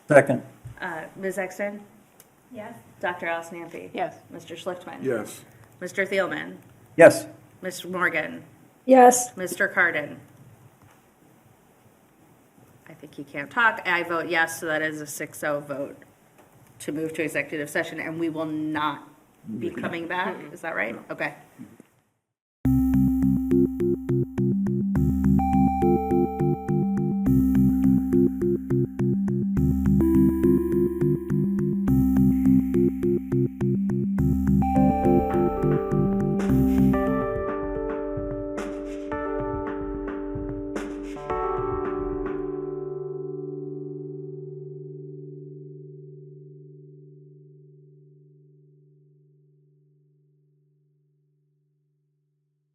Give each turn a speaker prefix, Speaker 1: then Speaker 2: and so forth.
Speaker 1: Second.
Speaker 2: Uh, Ms. Exton?
Speaker 3: Yes.
Speaker 2: Dr. Alice Nampi?
Speaker 4: Yes.
Speaker 2: Mr. Schlichtman?
Speaker 5: Yes.
Speaker 2: Mr. Thielman?
Speaker 1: Yes.
Speaker 2: Ms. Morgan?
Speaker 3: Yes.
Speaker 2: Mr. Cardin? I think he can't talk. I vote yes, so that is a 6-0 vote to move to executive session, and we will not be coming back. Is that right? Okay.